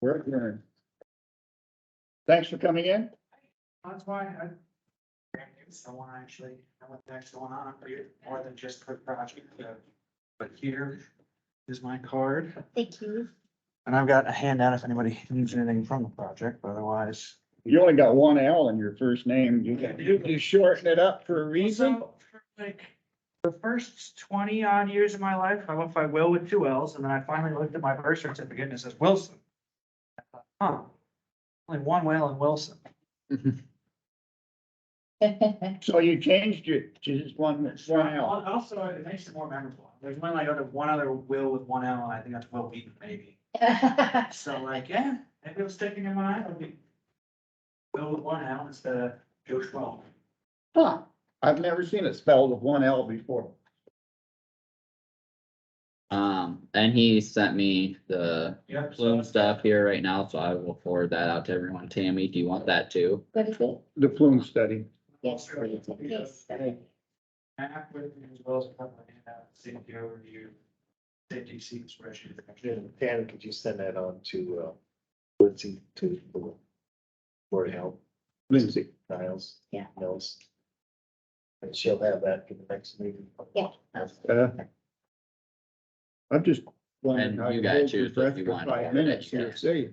We're adjourned. Thanks for coming in. That's why I. Someone actually, I went next to one on for you, more than just the project, uh, but here is my card. Thank you. And I've got a handout if anybody needs anything from the project, but otherwise. You only got one L in your first name. You can, you can shorten it up for a reason. So, for Like, the first twenty odd years of my life, I went by Will with two L's, and then I finally looked at my birth certificate and it says Wilson. I thought, Huh, only one Will in Wilson. So you changed it to just one, one L. Al- Also, it makes it more memorable. There's one like under one other Will with one L, and I think that's Will Wheaton, maybe. So like, yeah, if it was sticking in my eye, it would be Will with one L instead of Joe Schmo. Huh. I've never seen it spelled with one L before. Um, and he sent me the Yeah. plume stuff here right now, so I will forward that out to everyone. Tammy, do you want that too? What is it? The plume study. Yes, please. Yes. Back with me as well as a couple of handouts, safety overview, safety sequence regime. And Tanner, could you send that on to uh, Lindsay to the Board of Health, Lindsay, Niles? Yeah. Niles. And she'll have that for the next meeting. Yeah. uh, I'm just. wondering And how you gotta hold your choose if breath you for want Five it. minutes here, Yeah. see?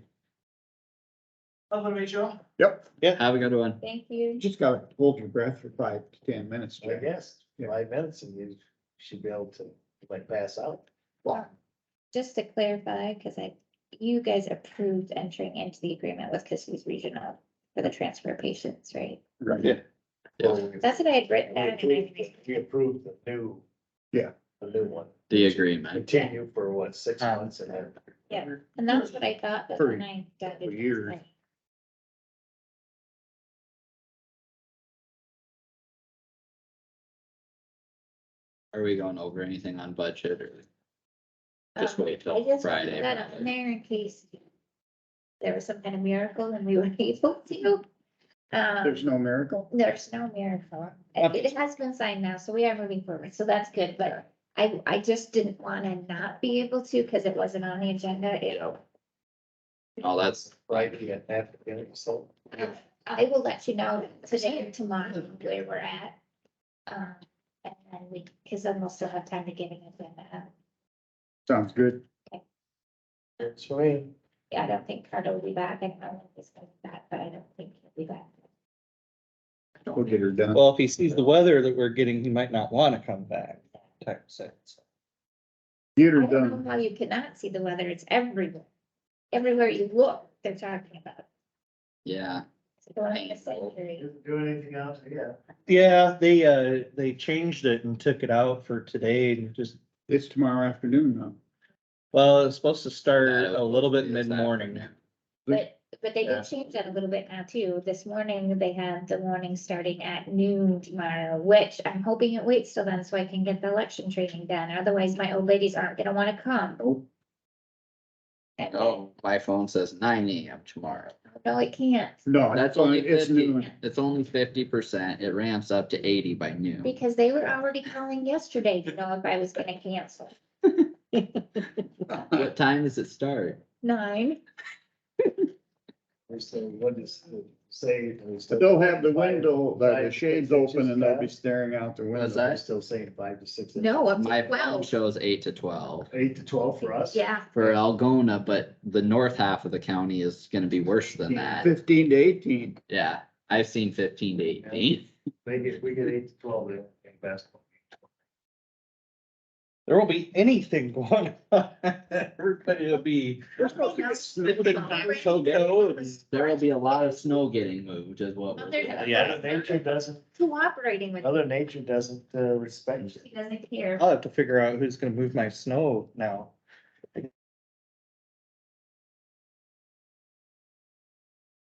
Hello, Rachel. Yep, Have a good one. Thank you. just gotta hold your breath for five to ten minutes. I Jack. guess, five minutes and you should be able to like pass out. Well, Just to clarify, because I, you guys approved entering into the agreement with Kissimmee Regional for the transfer patients, right? Right. Yeah. That's what I had written We down. and approved- I- we approved the new. Yeah. The new one. The agreement. Continue for what, six months and then. Yeah. And that's what I thought, but For- when I got. it, for years. I- Are we going over anything on budget or? Just Um, wait I till just Friday. put That on there in case there was some kind of miracle and we were able to. Um, There's no miracle? there's no miracle. It it has been signed now, so we are moving forward, so that's good, but I, I just didn't wanna not be able to, cause it wasn't on the agenda. It, Oh, that's, Right, you got that, you know, so. I will let you know today or tomorrow where we're at. Um, and then we, cause then we'll still have time to get an agenda out. Sounds good. It's me. Yeah, I don't think Carter will be back, I don't know if he's gonna be back, but I don't think he'll be back. We'll get her done. Well, if he sees the weather that we're getting, he might not want to come back. Type set. Get her I don't done. know how you cannot see the weather, it's everywhere. Everywhere you look, they're talking about. it. yeah, It's going to century. Doing anything else? Yeah. Yeah, they, uh, they changed it and took it out for today and just, It's tomorrow afternoon now. well, it's supposed to start Yeah, a little bit it was that mid-morning. afternoon. But, but they Yeah. did change that a little bit now too. This morning, they had the warning starting at noon tomorrow, which I'm hoping it waits till then so I can get the election training done. Otherwise, my old ladies aren't gonna wanna come. Nope. And- oh, my phone says nine AM tomorrow. No, it can't, No, it's That's only only, it's fifty, noon. it's only fifty percent. It ramps up to eighty by noon. because they were already calling yesterday to know if I was gonna cancel. What time does it start? Nine. We say, what does it say? We still- They'll have the window, the Five the to shades six inches open and they'll be fast. staring out the Was window. that- We're still saying five to six. No, up My to phone twelve. shows eight to twelve. Eight to twelve for us? Yeah, for Algona, but the north half of the county is gonna be worse than that. Fifteen to eighteen. Yeah, I've seen fifteen to eighteen. They get, we get eight to twelve in in basketball. There won't be anything going on. Everybody will be. They're supposed to get sipping There's hot already- cocoa and- There will be a lot of snow getting moved is what. we're- There's a- Yeah. Mother Nature doesn't, cooperating with, Mother Nature doesn't uh, respect you. she doesn't care. I'll have to figure out who's gonna move my snow now.